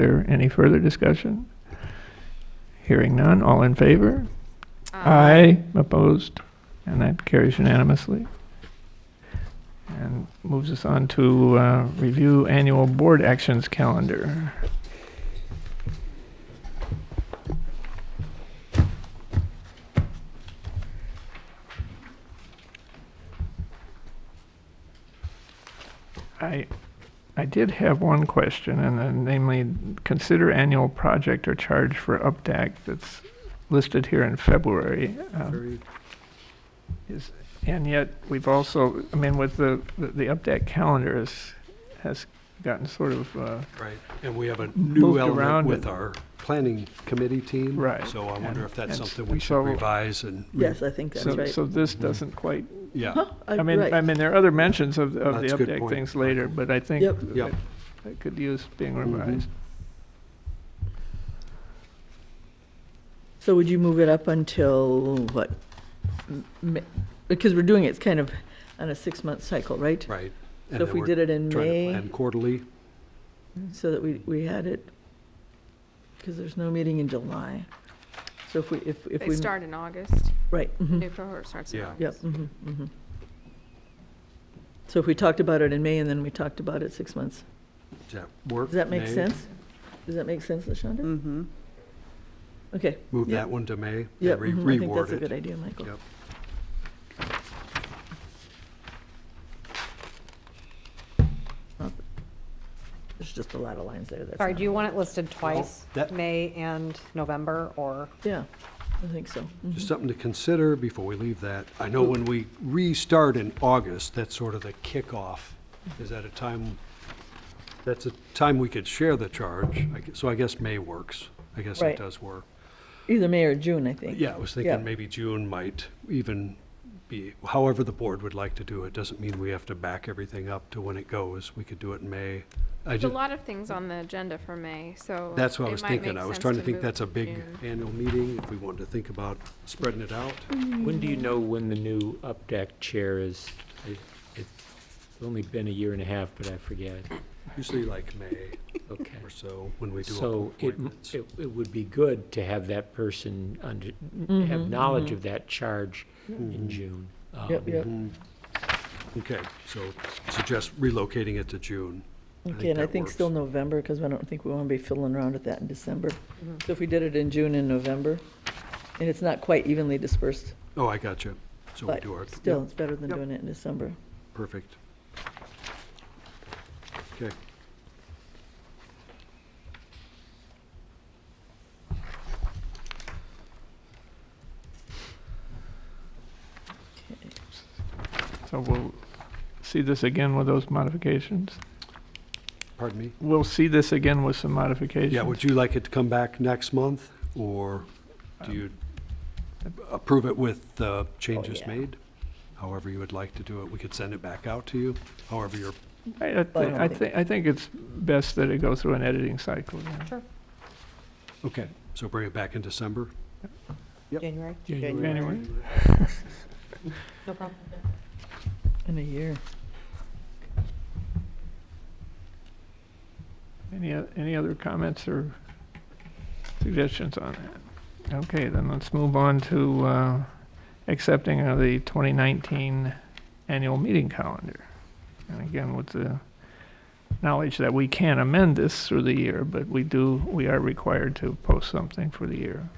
there any further discussion? Hearing none, all in favor? Aye. Opposed? And that carries unanimously. And moves us on to uh, review annual board actions calendar. I, I did have one question, and then namely, consider annual project or charge for UPDAC that's listed here in February. Um, is, and yet, we've also, I mean, with the, the- the UPDAC calendar is, has gotten sort of, uh, Right, and we have a Moved new around element with and- our planning committee team. Right, So I and- wonder if that's and something we so- should revise and. re- Yes, I think that's so, right. Uh, so this Mm-hmm. doesn't quite, Yeah, I mean, right. I mean, there are other mentions of, of the That's a good UPDAC point. things later, but I think Yep. Yep. that that could use being Mhm. revised. So would you move it up until what? M- ma- Because we're doing it, it's kind of on a six-month cycle, right? right. And So if then we we're did it in Trying to May, plan quarterly, so that we, we had it, because there's no meeting in July. So if we, if, if They we. start in August. Right. mhm. New cohort starts in Yeah. August. Yep. mhm, mhm. So if we talked about it in May and then we talked about it six months, does that work? does that make May? sense? Does that make sense, LaShonda? Mm-hmm. Okay. Move Yep. that one to May Yeah, and re- mhm, I think reword that's a good it. idea, Michael. Yep. There's just a lot of lines there. that's Sorry, not- do you want it listed twice, that- May and November, or? Yeah, I think so. Mhm. Just something to consider before we leave that. I know when we restart in August, that's sort of the kickoff. Is that a time, that's a time we could share the charge. I gue- So I guess May works. I guess Right. it does work. Either May or June, I think. Yeah, I was Yeah. thinking maybe June might even be, however the board would like to do it. Doesn't mean we have to back everything up to when it goes. We could do it in May. I There's a just, lot of things on the agenda for May, so. that's what I it was might thinking. make I was sense trying to think move that's a big June. annual meeting, if we wanted to think about spreading it out. When do you know when the new UPDAC chair is? It- It's only been a year and a half, but I forget. Usually like May Okay. or so, when we do So it, m- appointments. it it would be good to have that person under, have knowledge of that charge in June. Mm-hmm. Yep, Um, yep. Mm-hmm. Okay, so suggest relocating it to June. I Okay, and I that think works. still November, because I don't think we want to be fiddling around with that in December. So if we did it in June and November, and it's not quite evenly dispersed, Oh, I got you. So we but do our. yep, still, it's better than Yep. doing it in December. Perfect. Okay. So we'll see this again with those modifications. Pardon me? We'll see this again with some modifications. Yeah, would you like it to come back next month, or do you approve it with the changes yeah. made? However you would like to do it, we could send it back out to you, however you're, I, I thi- Well, I don't I think- think, I think it's best that it goes through an editing cycle. yeah. okay, so bring it back in December? Yep. January? January. No problem. In a year. Any, o- any other comments or suggestions on that? Okay, then let's move on to uh, accepting of the 2019 annual meeting calendar. And again, with the knowledge that we can amend this through the year, but we do, we are required to post something for the year.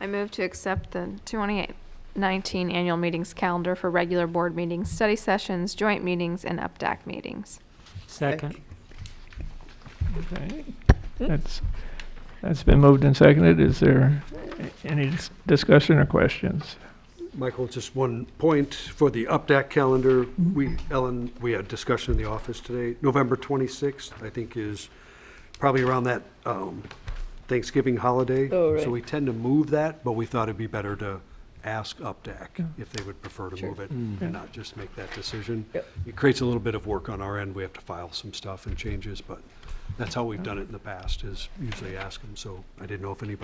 I move to accept the 2019 annual meetings calendar for regular board meetings, study sessions, joint meetings, and UPDAC meetings. Second. Okay, that's, that's been moved and seconded. Is there a- any dis- discussion or questions? Michael, just one point for the UPDAC calendar. We, Ellen, we had discussion in the office today. November 26th, I think, is probably around that um, Thanksgiving holiday. Oh, right. So we tend to move that, but we thought it'd be better to ask UPDAC if they would prefer to Sure. move it and not just make that decision. Yep. It creates a little bit of work on our end. We have to file some stuff and changes, but That's how we've done it in the past, is usually ask them, so I didn't know if anybody